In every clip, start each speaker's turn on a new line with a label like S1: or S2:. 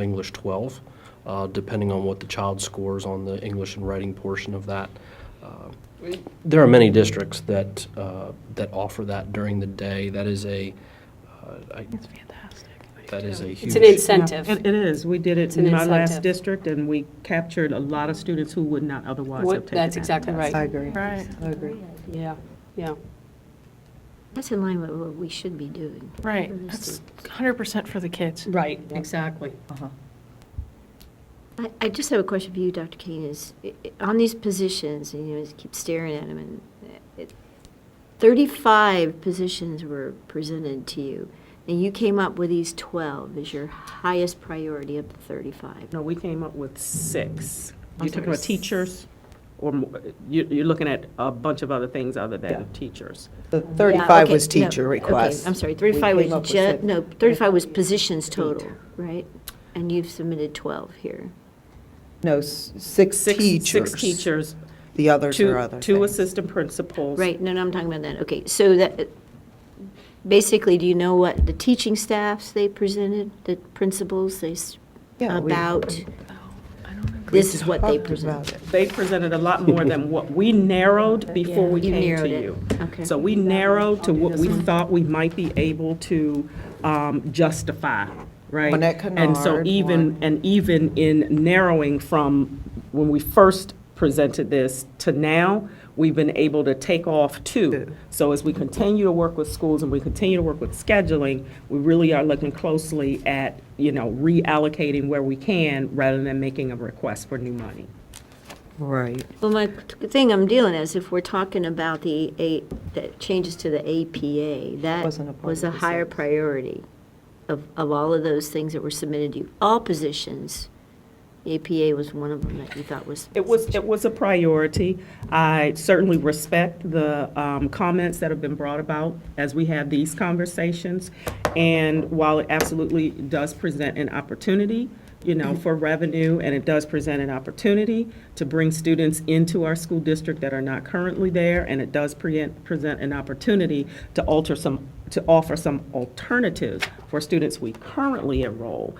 S1: English 12, uh, depending on what the child scores on the English and writing portion of that. Uh, There are many districts that, uh, that offer that during the day. That is a, uh, I-
S2: It's fantastic.
S1: that is a huge.
S3: It's an incentive.
S2: Yeah, It it is. We did it
S3: It's an
S2: in my last
S3: incentive.
S2: district, and we captured a lot of students who would not otherwise have
S3: What-
S2: taken that.
S3: That's exactly
S4: I
S3: right.
S4: agree.
S2: Right.
S4: I agree.
S3: Yeah, yeah.
S5: That's in line with what we should be doing.
S6: Right,
S5: For the
S6: that's
S5: student.
S6: 100% for the kids.
S3: Right, exactly.
S6: Oh,
S5: I, I just have a question for you, Dr. Kane, is, i- i- on these positions, and you know, just keep staring at them, and uh, it- thirty-five positions were presented to you, and you came up with these twelve as your highest priority of the thirty-five.
S2: No, we came up with six.
S5: I'm
S2: You're talking
S5: sorry,
S2: about teachers, or mo- you- you're looking at a bunch of other things other than teachers.
S4: The
S5: Yeah,
S4: 35
S5: okay,
S4: was
S5: no,
S4: teacher
S5: okay,
S4: requests.
S5: I'm sorry,
S4: We
S5: thirty-five
S4: came up
S5: was
S4: with
S5: ju,
S4: six.
S5: no, thirty-five was positions total, right? And you've submitted twelve here.
S4: No, s- six
S2: Six-
S4: teachers.
S2: Six teachers,
S4: The others are
S2: two
S4: other
S2: two
S4: things.
S2: assistant principals.
S5: Right, no, no, I'm talking about that, okay, so that, basically, do you know what the teaching staffs they presented, the principals they, s-
S4: Yeah, we-
S5: about,
S6: I don't agree.
S5: this is what they
S4: Talked about
S5: presented?
S4: it.
S2: They presented a lot more than what we narrowed before we
S5: You
S2: came to
S5: narrowed it.
S2: you.
S5: Okay.
S2: So we narrowed to what we thought we might be able to um, justify, right?
S4: One at
S2: And so
S4: Kennard,
S2: even,
S4: one-
S2: and even in narrowing from when we first presented this to now, we've been able to take off two. So as we continue to work with schools and we continue to work with scheduling, we really are looking closely at, you know, reallocating where we can rather than making a request for new money.
S4: Right.
S5: Well, my thing I'm dealing is, if we're talking about the, A- the changes to the APA,
S4: Wasn't a part
S5: that was
S4: of
S5: a
S4: this
S5: higher
S4: list.
S5: priority of, of all of those things that were submitted to you, all positions, the APA was one of them that you thought was.
S2: It was, it was a priority. I certainly respect the um, comments that have been brought about as we have these conversations. And while it absolutely does present an opportunity, you know, for revenue, and it does present an opportunity to bring students into our school district that are not currently there, and it does present, present an opportunity to alter some, to offer some alternatives for students we currently enroll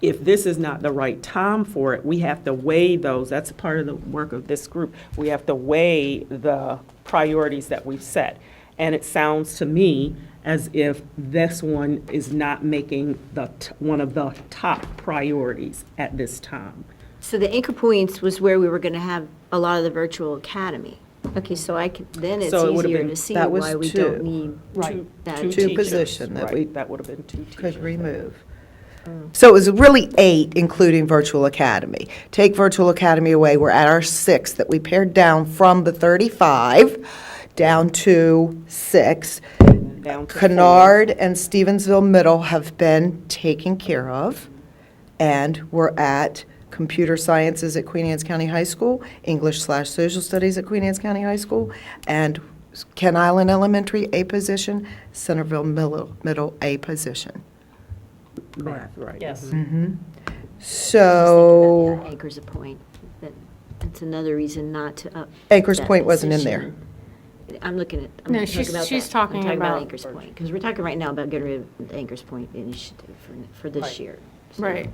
S2: if this is not the right time for it, we have to weigh those. That's part of the work of this group. We have to weigh the priorities that we've set. And it sounds to me as if this one is not making the, t- one of the top priorities at this time.
S5: So the Anchor Points was where we were going to have a lot of the virtual academy. Okay, so I could, then it's
S2: So it would've
S5: easier
S2: been-
S5: to see
S4: that was
S5: why we
S4: two.
S5: don't need.
S2: Two-
S5: that.
S2: Two
S5: Two
S2: teachers.
S4: position that
S2: Right,
S4: we
S2: That would have been two teachers.
S4: Could remove.
S2: Oh.
S4: So it was really eight, including Virtual Academy. Take Virtual Academy away, we're at our six that we pared down from the 35 down to six.
S2: Down to four.
S4: Kennard and Stevensville Middle have been taken care of, and we're at computer sciences at Queen Anne's County High School, English slash social studies at Queen Anne's County High School, and Ken Island Elementary, a position, Centerville Middle, Middle, a position.
S2: Math, right.
S6: Yes.
S4: Mm. So
S5: Anchor's a point. That- That's another reason not to up.
S4: Anchor's
S5: that
S4: Point wasn't in there.
S5: position. I'm looking at, I'm
S6: No,
S5: talking about
S6: she's-
S5: that.
S6: she's
S5: I'm
S6: talking about-
S5: Anchor's Point, because we're talking right now about getting rid of the Anchor's Point initiative for, for this year. So
S6: Right.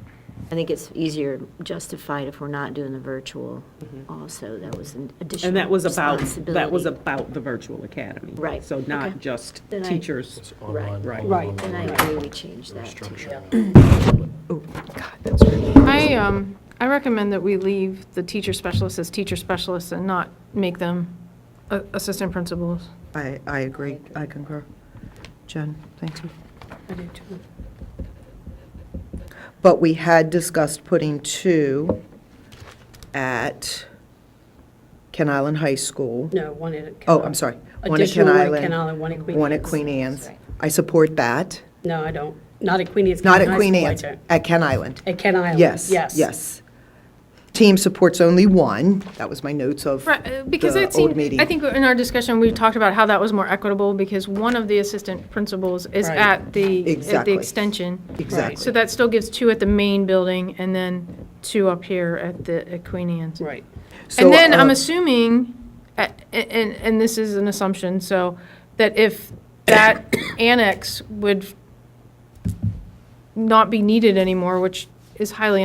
S5: I think it's easier justified if we're not doing the virtual also. That was an
S2: Mm-hmm.
S5: additional
S2: And that was about, that was
S5: responsibility.
S2: about the virtual academy.
S5: Right,
S2: So not
S5: okay.
S2: just
S5: Then I-
S2: teachers.
S1: online,
S2: Right,
S1: online,
S2: right.
S1: online,
S5: And I
S1: online.
S5: agree we change that too.
S2: Oh,
S6: I, um, I recommend that we leave the teacher specialists as teacher specialists and not make them uh, assistant principals.
S4: I, I agree, I concur. Jen, thank you. But we had discussed putting two at Ken Island High School.
S3: No, one at.
S4: Oh, I'm sorry. One at
S3: Additional
S4: Ken
S3: one at
S4: Island.
S3: Ken Island, one at Queen
S4: One at
S3: Anne's.
S4: Queen Anne's.
S3: That's right.
S4: I support that.
S3: No, I don't. Not at Queen Anne's.
S4: Not
S3: County
S4: at
S3: High
S4: Queen
S3: School, I
S4: Anne's,
S3: don't.
S4: at Ken Island.
S3: At Ken Island.
S4: Yes,
S3: Yes.
S4: yes. Team supports only one. That was my notes of
S6: Right, uh, because
S4: the
S6: it
S4: old
S6: seemed,
S4: meeting.
S6: I think in our discussion, we talked about how that was more equitable because one of the assistant principals is
S3: Right.
S6: at the, at
S4: Exactly.
S6: the extension.
S4: Exactly.
S6: So that still gives two at the main building and then two up here at the, at Queen Anne's.
S3: Right.
S4: So,
S6: And then I'm
S4: uh,
S6: assuming, uh, and, and this is an assumption, so that if that annex would not be needed anymore, which is highly